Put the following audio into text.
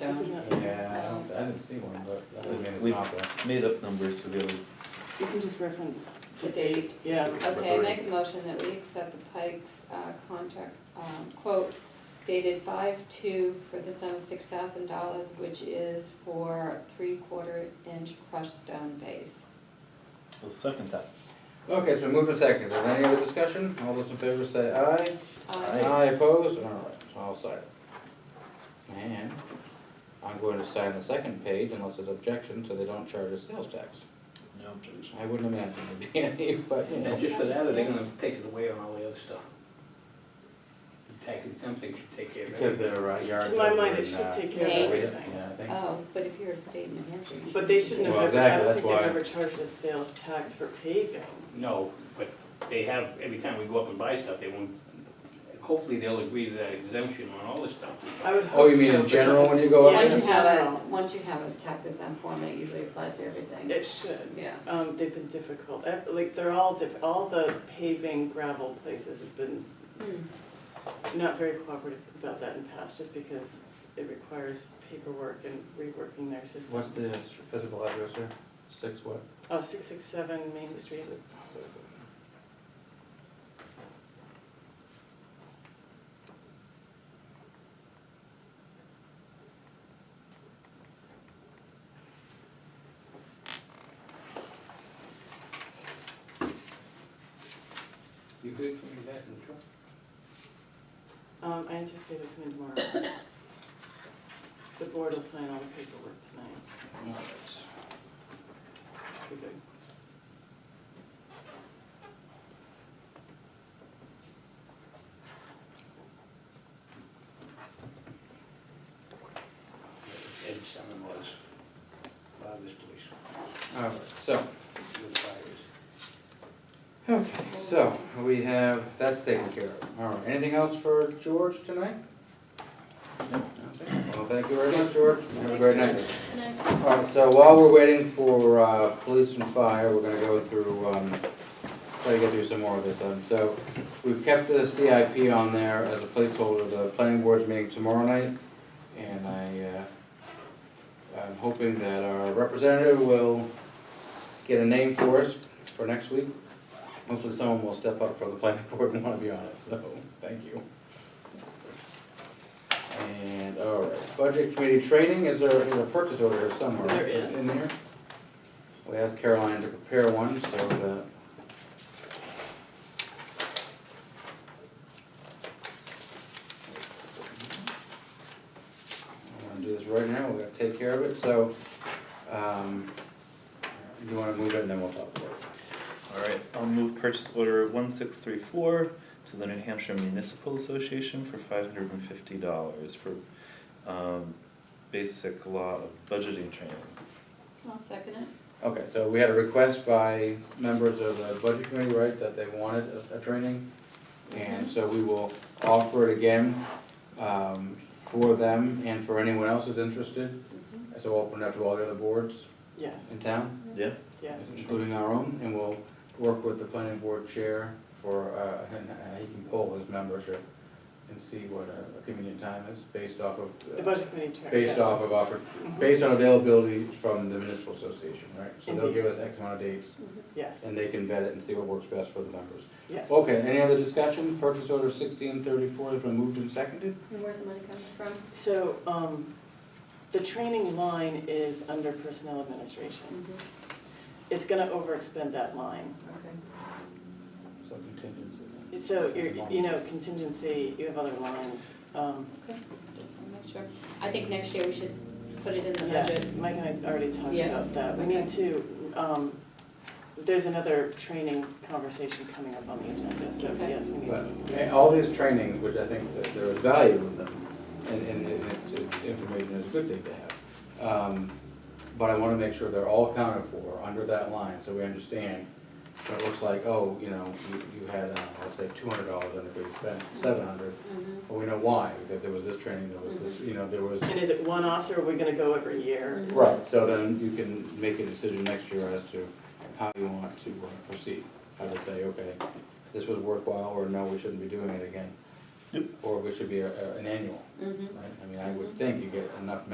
stone? Yeah, I don't, I didn't see one, but that doesn't mean it's We- not there. Made up numbers for the other. You can just reference, The date? yeah. Okay, I make a motion that we accept the Pikes uh, contract, um, quote dated five two for the sum of six thousand dollars, which is for three-quarter inch crushed stone base. I'll second that. Okay, so moved to second, is there any other discussion? All those in favor say aye. Uh, Aye opposed, alright, so I'll sign it. And I'm going to sign the second page unless there's objection, so they don't charge us sales tax. No objection. I wouldn't imagine there'd be any, but, you know. And just for that, or they're gonna take it away on all the other stuff. The Tax exempt thing should take care of Because it. they're uh, yards To my mind, over it in, should uh, take care of Yeah. everything. Yeah, I think. Oh, but if you're a state in New Hampshire. you But they shouldn't have Well, ever, I exactly, don't that's think they've why. ever charged us sales tax for paving. No, but they have, every time we go up and buy stuff, they won't, hopefully they'll agree to that exemption on all this stuff. I would hope Oh, you mean so, in but general when you it's- go up yeah, Once in you have a, general. once you have a tax exempt form, it usually applies to everything. It should. Yeah. Um, they've been difficult, Eh, like, they're all diff, all the paving gravel places have been Hmm. not very cooperative about that in the past, just because it requires paperwork and reworking their system. What's the physical address there? Six what? Uh, six six seven Main Six, Street. six, seven. You good for me that, and sure? Um, I anticipate it'll come in tomorrow. The board will sign all the paperwork tonight, All right. we good. Ed's son-in-law's father's place, All right, so, where the fire is. okay, so we have, that's taken care of. All right, anything else for George tonight? Well, thank you very much, George. Have a great night. All right, so while we're waiting for uh, police and fire, we're gonna go through, um, try to get through some more of this. Um, So we've kept the CIP on there as a placeholder, the planning board's meeting tomorrow night. And I, uh, I'm hoping that our representative will get a name for us for next week. Hopefully someone will step up for the planning board and wanna be on it, so, thank you. And, all right, budget committee training, is there, is a purchase order somewhere? There is. In there? We asked Caroline to prepare one, so that. I wanna do this right now, we gotta take care of it, so, um, you wanna move it and then we'll talk about it. All right, I'll move purchase order one six three four to the New Hampshire Municipal Association for five hundred and fifty dollars for um, basic law of budgeting training. I'll second it. Okay, so we had a request by members of the budget committee, right, that they wanted a, a training? And Mm-hmm. so we will offer it again, um, for them and for anyone else who's interested. Mm-hmm. So we'll open it up to all the other boards Yes, in town, Yeah, yes. including our own, and we'll work with the planning board chair for, uh, and uh, he can poll his membership and see what a a convenient time is based off of. uh, The budget committee chair, yes. Mm-hmm. Based off of offer, based on availability from the municipal association, right? So they'll Indeed. give us X amount of dates, Mm-hmm. Yes, and they can vet it and see what works best for the members. yes. Okay, any other discussion? Purchase order sixteen thirty-four has been moved and seconded? And where's the money coming from? So, um, the training line is under personnel administration. Mm-hmm. It's gonna overexpend that line. Okay. So contingency. So, you're, you know, contingency, you have other lines. Um, Just wanna make sure. I think next year we should put it in the Yes, budget. Mike and I already talked Yeah. about that. We need to, um, there's another training conversation coming up on the agenda, so Okay. yes, we need But to. eh, all these trainings, which I think that there is value in them, and, and it- it- it- information is a good thing to have. Um, But I wanna make sure they're all accounted for under that line, so we understand. So it looks like, oh, you know, you- you had, uh, let's say, two hundred dollars, and if we spent seven hundred, Mhm. but we know why, because there was this training, there was this, you know, there was. And is it one officer, or are we gonna go every Mm-hmm. year? Right, so then you can make a decision next year as to how you want to uh, proceed. How to say, okay, this was worthwhile, or no, we shouldn't be doing it again. Yep. Or we should be a- a- an annual, Mhm. right? I mean, I would think you get enough